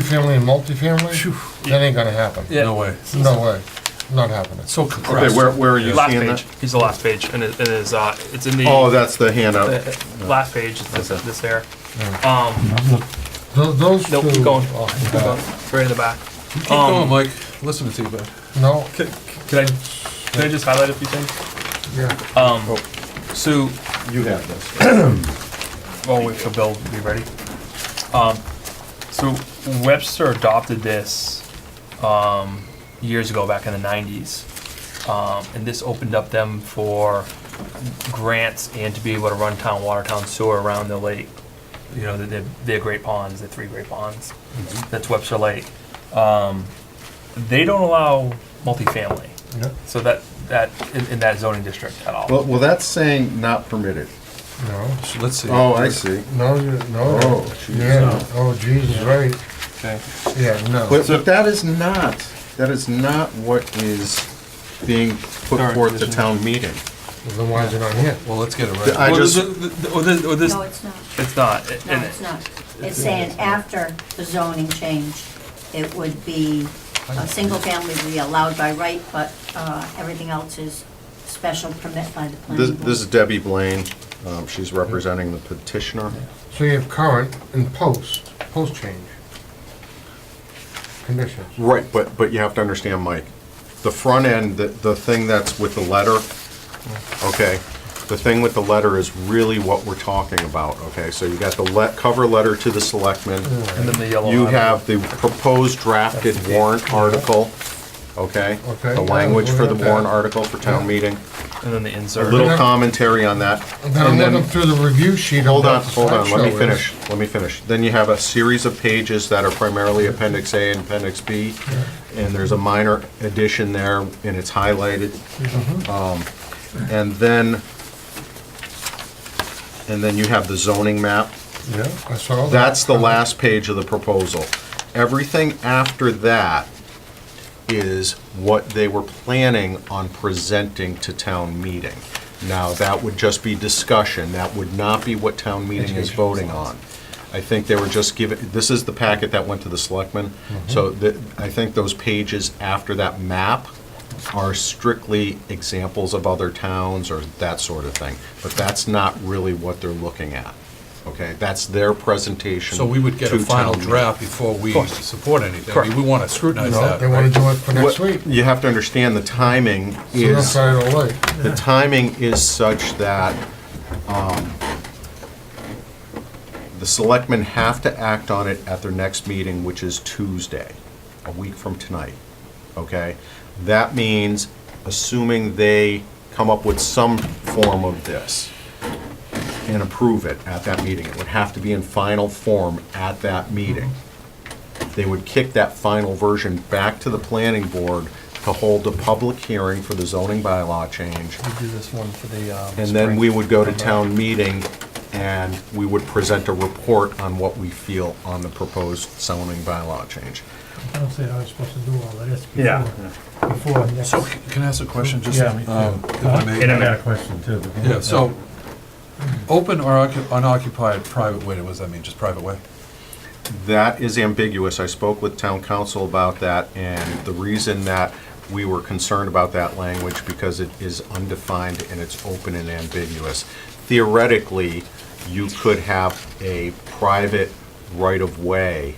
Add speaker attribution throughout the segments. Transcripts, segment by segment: Speaker 1: Family and multifamily, that ain't gonna happen.
Speaker 2: No way.
Speaker 1: No way, not happening.
Speaker 2: So
Speaker 3: Okay,
Speaker 2: compressed.
Speaker 3: where, where are you
Speaker 4: Last
Speaker 3: seeing
Speaker 4: page.
Speaker 3: that?
Speaker 4: He's the last page, and it, it is. Uh, it's in the,
Speaker 3: Oh, that's the handout.
Speaker 4: the last page. It's this,
Speaker 3: Okay.
Speaker 4: this there. Um,
Speaker 1: Tho- Those two.
Speaker 4: nope. Keep going.
Speaker 1: oh,
Speaker 4: Keep going. It's right in the back.
Speaker 2: Keep going, Mike. Listen to you, bud.
Speaker 1: No,
Speaker 4: Can I? Can I just highlight a few things?
Speaker 1: yeah,
Speaker 4: Um,
Speaker 3: Oh.
Speaker 4: so
Speaker 3: You have this.
Speaker 4: Well, Oh, wait for Bill to be ready. Um, so Webster adopted this, um, years ago, back in the nineties. Um, and this opened up them for grants and to be able to run town, water town sewer around the lake. You know, they're, they're great ponds, they're three great ponds.
Speaker 3: Mm-hmm.
Speaker 4: That's Webster Lake. Um, they don't allow multifamily,
Speaker 1: no,
Speaker 4: so that, that, in, in that zoning district at all.
Speaker 3: Well, well, that's saying not permitted.
Speaker 1: no,
Speaker 2: Let's see.
Speaker 3: Oh, I see.
Speaker 1: no, you- no,
Speaker 3: Oh, geez.
Speaker 1: yeah, oh, Jesus, right,
Speaker 3: Okay.
Speaker 1: yeah, no.
Speaker 3: But, but that is not, that is not what is being put
Speaker 4: Alright,
Speaker 3: forth at
Speaker 4: condition.
Speaker 3: town meeting.
Speaker 1: Then why is it on here?
Speaker 2: Well, let's get it
Speaker 3: The- I
Speaker 2: right.
Speaker 4: Or
Speaker 3: just-
Speaker 4: this, or this, or this,
Speaker 5: No, it's not.
Speaker 4: it's not.
Speaker 5: No,
Speaker 4: and-
Speaker 5: it's not. It's saying after the zoning change, it would be, a single family would be allowed by right, but uh, everything else is special permit by the
Speaker 3: This,
Speaker 5: planning board.
Speaker 3: this is Debbie Blaine. Um, she's representing the petitioner.
Speaker 1: So you have current and post, post change. Conditions,
Speaker 3: Right, but, but you have to understand, Mike, the front end, the, the thing that's with the letter, okay, the thing with the letter is really what we're talking about, okay? So you got the let, cover letter to the selectmen,
Speaker 4: And then the yellow.
Speaker 3: you
Speaker 4: line.
Speaker 3: have the proposed drafted warrant article, okay?
Speaker 1: Okay,
Speaker 3: The
Speaker 1: yeah,
Speaker 3: language for the
Speaker 1: we're at
Speaker 3: warrant
Speaker 1: that.
Speaker 3: article for town meeting,
Speaker 4: And then the
Speaker 3: a
Speaker 4: insert.
Speaker 3: little commentary on that.
Speaker 1: and then I'm
Speaker 3: and then-
Speaker 1: looking through the review sheet. of
Speaker 3: Hold
Speaker 1: what
Speaker 3: on,
Speaker 1: the
Speaker 3: hold on, let me
Speaker 1: slideshow is.
Speaker 3: finish, let me finish. Then you have a series of pages that are primarily Appendix A and Appendix B, and there's a minor addition there, and it's highlighted.
Speaker 1: Mm-hmm.
Speaker 3: Um, And then, and then you have the zoning map.
Speaker 1: Yeah, I saw that.
Speaker 3: That's the last page of the proposal. Everything after that is what they were planning on presenting to town meeting. Now, that would just be discussion, that would not be what town meeting is voting on. I think they were just giving, this is the packet that went to the selectmen,
Speaker 2: Mm-hmm.
Speaker 3: so that, I think those pages after that map are strictly examples of other towns or that sort of thing, but that's not really what they're looking at, okay? That's their presentation.
Speaker 2: So we would get a
Speaker 3: to
Speaker 2: final
Speaker 3: town meeting.
Speaker 2: draft before we support anything. I mean, we want to scrutinize
Speaker 1: No,
Speaker 2: that,
Speaker 1: they wanna
Speaker 2: right?
Speaker 1: do it for next
Speaker 3: What-
Speaker 1: week,
Speaker 3: You have to understand the timing
Speaker 1: so that's
Speaker 3: is,
Speaker 1: why I don't like.
Speaker 3: the timing is such that um, the selectmen have to act on it at their next meeting, which is Tuesday, a week from tonight, okay? That means, assuming they come up with some form of this and approve it at that meeting, it would have to be in final form at that meeting they would kick that final version back to the planning board to hold a public hearing for the zoning bylaw change,
Speaker 4: do this one for the, um.
Speaker 3: and then we would go to town meeting, and we would present a report on what we feel on the proposed zoning bylaw change.
Speaker 6: I don't see how you're supposed to do all of this
Speaker 4: Yeah.
Speaker 6: before, before next.
Speaker 2: So c- can I ask a question, just?
Speaker 6: Yeah.
Speaker 2: um, if I may?
Speaker 6: And I got a question too. but-
Speaker 2: Yeah, so, open or occu- unoccupied private way, what does that mean? Just private way?
Speaker 3: That is ambiguous. I spoke with town council about that, and the reason that we were concerned about that language, because it is undefined and it's open and ambiguous. Theoretically, you could have a private right-of-way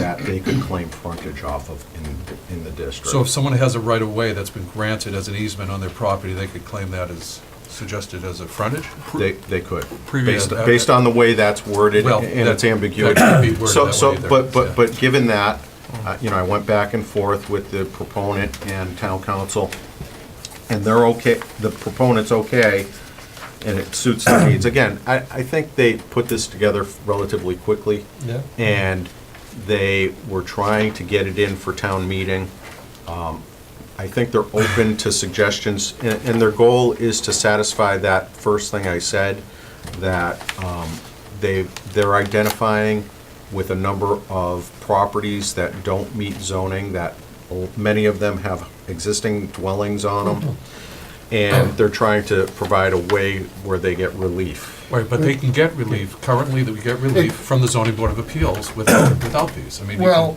Speaker 3: that they could claim frontage off of in, in the district.
Speaker 2: So if someone has a right of way that's been granted as an easement on their property, they could claim that as suggested as a frontage?
Speaker 3: They, they could.
Speaker 2: Previous-
Speaker 3: Based, based on the way that's worded
Speaker 2: Well,
Speaker 3: and its
Speaker 2: that-
Speaker 3: ambiguity.
Speaker 2: that could be worded
Speaker 3: So,
Speaker 2: that
Speaker 3: so,
Speaker 2: way either,
Speaker 3: but,
Speaker 2: yeah.
Speaker 3: but, but given that, uh, you know, I went back and forth with the proponent and town council, and they're okay, the proponent's okay, and it suits their needs. Again, I, I think they put this together relatively quickly.
Speaker 1: Yeah.
Speaker 3: And they were trying to get it in for town meeting. Um, I think they're open to suggestions, and, and their goal is to satisfy that first thing I said, that um, they, they're identifying with a number of properties that don't meet zoning, that l- many of them have existing dwellings on them, and they're trying to provide a way where they get relief.
Speaker 2: Right, but they can get relief, currently, that we get relief from the zoning board of appeals without, without these. I mean, you can-
Speaker 1: Well,